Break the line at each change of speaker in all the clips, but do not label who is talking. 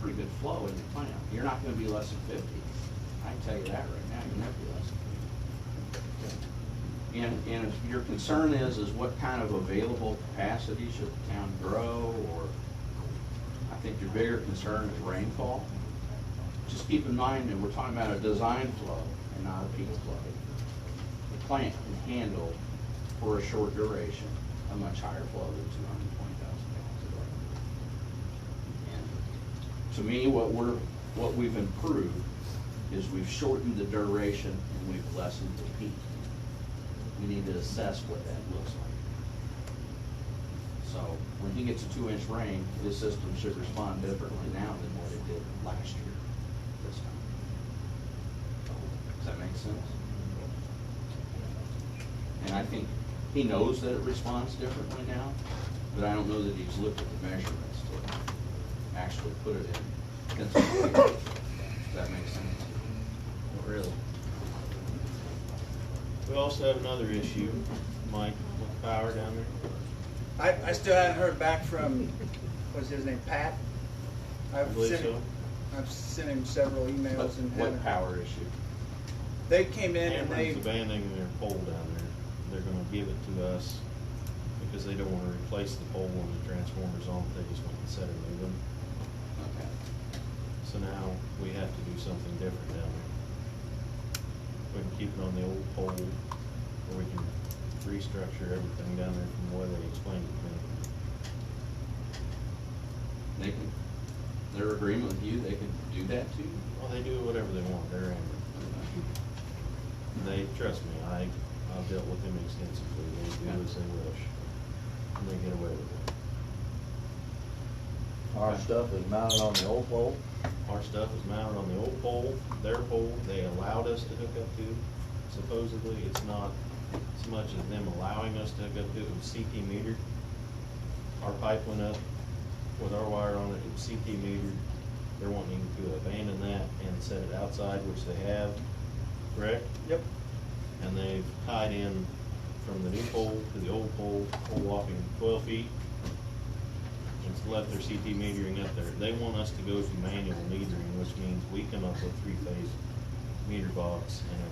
pretty good flow in your plant. You're not gonna be less than fifty. I can tell you that right now, you're not gonna be less than fifty. And, and if your concern is, is what kind of available capacity should the town grow, or I think your bigger concern is rainfall. Just keep in mind that we're talking about a design flow and not a peak flow. The plant can handle for a short duration, a much higher flow than two hundred and twenty thousand gallons a day. And To me, what we're, what we've improved is we've shortened the duration and we've lessened the peak we need to assess what that looks like. So when he gets a two-inch rain, his system should respond differently now than what it did last year, this time. Does that make sense? And I think he knows that it responds differently now, but I don't know that he's looked at the measurements to actually put it in. consideration. Does that make sense? Really?
We also have another issue, Mike, with power down there.
I, I still haven't heard back from, what's his name, Pat?
I
I've
believe
sent
so.
him- I've sent him several
What,
emails and
what
haven't.
power issue?
They came in and
Amber's
they,
abandoning their pole down there. They're gonna give it to us because they don't wanna replace the pole when the transformer's on. They just want to set it moving.
Okay.
So now we have to do something different down there. We can keep it on the old pole or we can restructure everything down there from the way they explained it to me.
They can, their agreement with you, they can do that to you?
Well, they do whatever they want. They're Amber. They, trust me, I, I've dealt with them extensively, they do as they wish, and they get away with it.
Our stuff is mounted on the old pole.
Our stuff is mounted on the old pole, their pole, they allowed us to hook up to, supposedly, it's not as much as them allowing us to hook up to, it was CT metered. Our pipe went up with our wire on it, it was CT metered, they're wanting to abandon that and set it outside, which they have, correct?
yep,
and they've tied in from the new pole to the old pole, pole walking twelve feet. And it's left their CT metering up there. They want us to go to manual metering, which means we come up with three-phase meter box and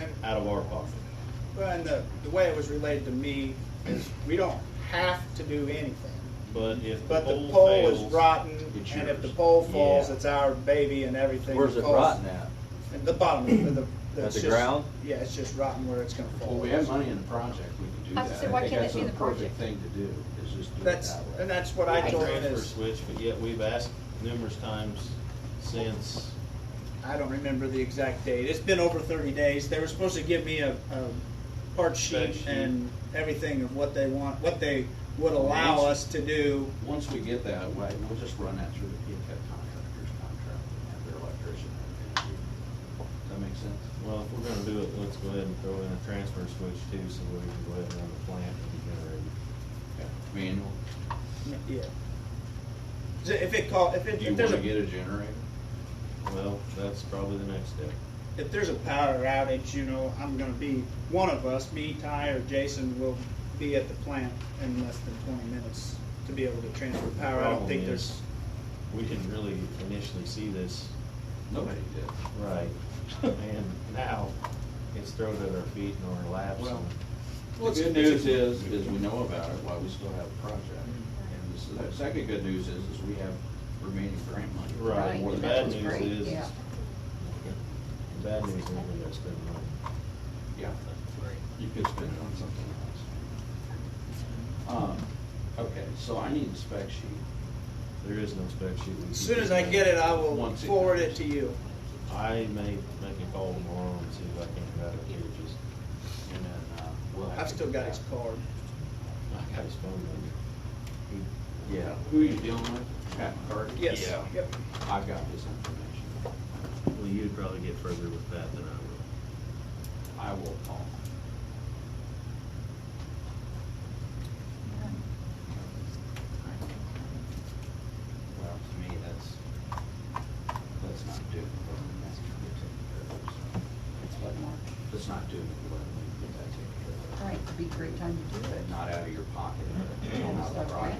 everything,
and,
out of our pocket.
well, and the, the way it was relayed to me is we don't have to do anything.
But if the
But the
pole
pole is
fails,
rotten,
it's
and if the
yours.
pole falls,
Yeah.
it's our baby and everything.
Where's it
falls-
rotten at?
At the bottom of the.
At
it's
the
just-
ground?
Yeah, it's just rotten where it's gonna fall.
Well, we have money in the project, we can do
I
that.
said, why
think
can't it
that's
be
a
the
perfect
project?
Thing to do, is just do it
That's,
that way.
and that's what I
we
told him
transfer
is,
switch, but yet we've asked numerous times since,
I don't remember the exact date. It's been over thirty days. They were supposed to give me a, a part
Spec
sheet
sheet.
and everything of what they want, what they would allow
Once-
us to do.
Once we get that way, we'll just run that through the P-CAT contractor's contract and have their electrician. have it. Does that make sense?
well, if we're gonna do it, let's go ahead and throw in a transfer switch too, so we can go ahead and run the plant and generate it.
Manual,
Yeah. So If it call, if it,
do you
if there's
wanna
a,
get a generator?
Well, that's probably the next step.
if there's a power outage, you know, I'm gonna be, one of us, me, Ty, or Jason will be at the plant in less than twenty minutes to be able to transfer power. I don't
Problem
think
is,
there's,
We didn't really initially see this
Nobody did.
right, and now it's thrown at our feet and our laps. and-
Well,
Well,
The
it's-
good
it's-
news is, is we know about it, why we still have a project. And this is- the second good news is, is we have remaining grant money.
Right,
More
the
than
bad
that.
was
news
great,
is,
yeah.
the bad news is we gotta spend money.
Yeah, you could spend it on something else. Um, okay, so I need a spec sheet.
There is no spec sheet.
as soon as I get it, I will
Once it
forward it
comes.
to you.
I may make a call tomorrow and see if I can grab it here, just,
and then, uh, we'll have.
I've
to-
still got his card.
I got his phone number. He-
Yeah, who are you dealing with? Pat McCarty?
Yes,
Yeah.
yep.
I've got his information.
Well, you'd probably get further with that than I will.
I will call. him. Well, to me, that's, that's not doing what that's gonna be taken care of. so. It's like, that's not doing what we need to get that taken care of.
Right, it'd be a great time to do it.
But not out of your pocket, but
Yeah,
out of the
stuff like